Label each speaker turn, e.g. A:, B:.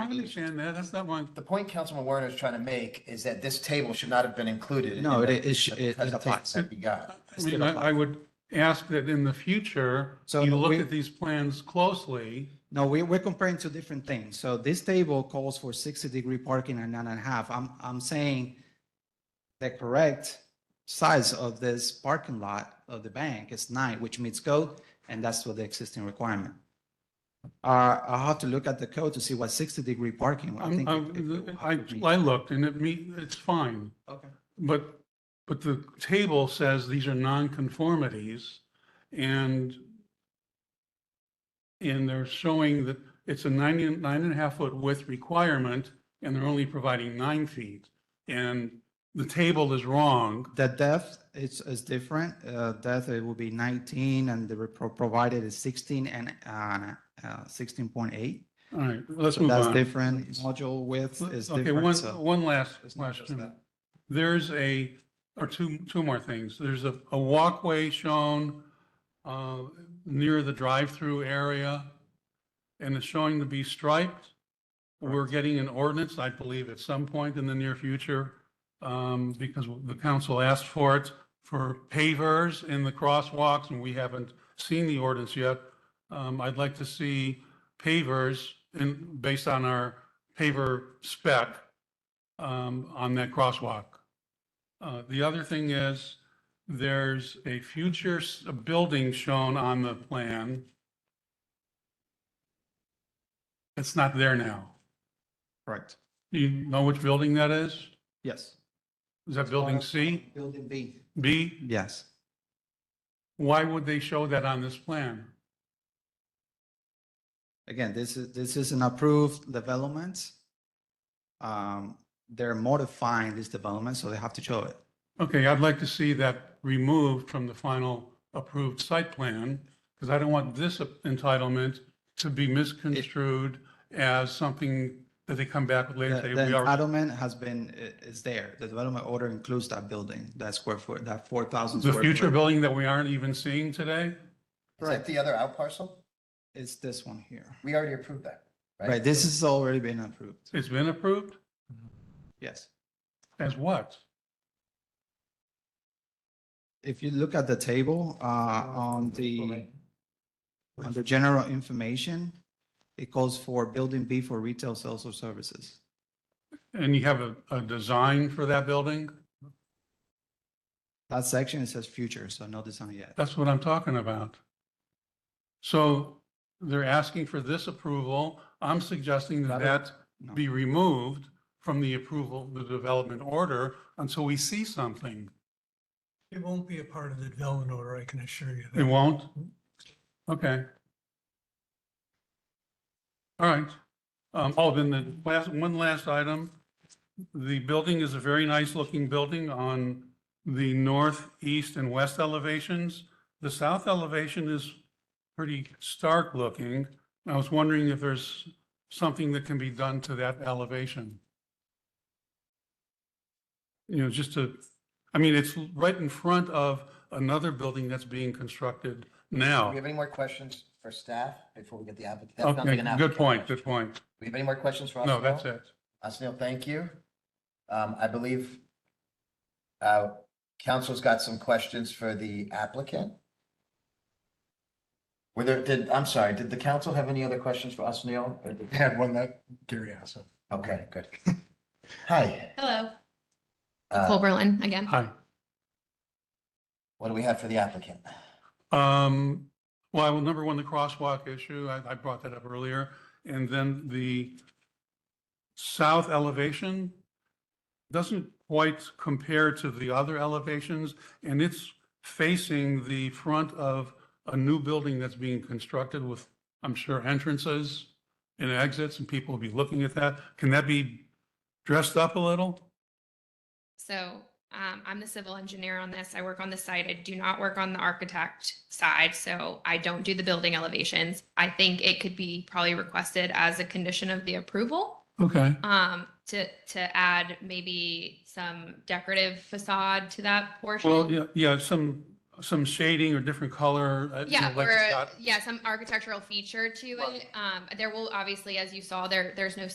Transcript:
A: understand that. That's not my,
B: The point Councilman Werner is trying to make is that this table should not have been included.
C: No,
B: in
C: it
B: the-
C: is- it-
B: the-
C: it
B: the
C: applies.
B: That we got.
A: I mean, I I would ask that in the future,
C: So
A: you look
C: we-
A: at these plans closely.
C: No, we, we're comparing two different things. So this table calls for sixty degree parking and nine and a half. I'm, I'm saying the correct size of this parking lot of the bank is nine, which meets code, and that's what the existing requirement. Uh, I'll have to look at the code to see what sixty degree parking. I
A: I'm-
C: think it-
A: I'm-
C: it-
A: I, I looked and it me, it's fine.
C: Okay.
A: But, but the table says these are nonconformities and and they're showing that it's a nine, and- nine and a half foot width requirement and they're only providing nine feet. And the table is wrong.
C: The depth is, is different. Uh, depth, it will be nineteen, and the pro- provided is sixteen and, uh, uh, sixteen point eight.
A: All right, let's
C: So
A: move
C: that's
A: on.
C: different. Module width is
A: Okay,
C: different,
A: one,
C: so.
A: one last
C: it's not just
A: question.
C: that.
A: There's a, or two, two more things. There's a, a walkway shown uh, near the drive-through area, and it's showing to be striped. We're getting an ordinance, I believe, at some point in the near future, um, because the council asked for it, for pavers in the crosswalks, and we haven't seen the ordinance yet. Um, I'd like to see pavers in, based on our paver spec, um, on that crosswalk. Uh, the other thing is, there's a future s- a building shown on the plan. It's not there now.
C: Correct.
A: Do you know which building that is?
C: Yes.
A: Is that building C,
C: Building B.
A: B?
C: Yes.
A: Why would they show that on this plan?
C: Again, this is, this is an approved development. Um, they're modifying this development, so they have to show it.
A: Okay, I'd like to see that removed from the final approved site plan, because I don't want this entitlement to be misconstrued as something that they come back with
C: The
A: later. and say,
C: the
A: "We are-"
C: entitlement has been, i- is there. The development order includes that building, that square foot, that four thousand.
A: The future building that we aren't even seeing today?
B: Is that the other out parcel?
C: It's this one here.
B: We already approved that.
C: Right, this has already been approved.
A: It's been approved
C: Yes.
A: as what?
C: If you look at the table, uh, on the, on the general information, it calls for building B for retail sales or services.
A: And you have a, a design for that building?
C: That section, it says future, so no design yet.
A: That's what I'm talking about. So they're asking for this approval. I'm suggesting that that
C: No.
A: be removed from the approval, the development order, until we see something.
D: It won't be a part of the development order, I can assure you.
A: It
D: that.
A: won't? Okay. All right. Um, oh, then the last, one last item. The building is a very nice looking building on the north, east and west elevations. The south elevation is pretty stark looking. I was wondering if there's something that can be done to that elevation. You know, just to I mean, it's right in front of another building that's being constructed
B: Do we
A: now.
B: have any more questions for staff before we get the applicant? That's not like
A: Okay,
B: an
A: good
B: applicant
A: point,
B: question.
A: good point.
B: Do we have any more questions for us?
A: No, that's it.
B: Asnil, thank you. Um, I believe uh, council's got some questions for the applicant. Were there, did, I'm sorry, did the council have any other questions for Asnil? Or did-
E: had one that Gary asked.
B: Okay, good. Hi,
F: Hello, Cole
B: uh,
F: Berlin again.
A: Hi.
B: what do we have for the applicant?
A: Um, well, number one, the crosswalk issue, I, I brought that up earlier. And then the south elevation doesn't quite compare to the other elevations. And it's facing the front of a new building that's being constructed with, I'm sure, entrances and exits and people will be looking at that. Can that be dressed up a little?
F: So um, I'm the civil engineer on this. I work on the site. I do not work on the architect side, so I don't do the building elevations. I think it could be probably requested as a condition of the approval.
A: Okay.
F: Um, to, to add maybe some decorative facade to that portion.
A: Well, yeah, yeah, some, some shading or different color. uh, you
F: Yeah,
A: know, like it's
F: or,
A: got-
F: yeah, some architectural feature to it. Um, there will obviously, as you saw, there, there's no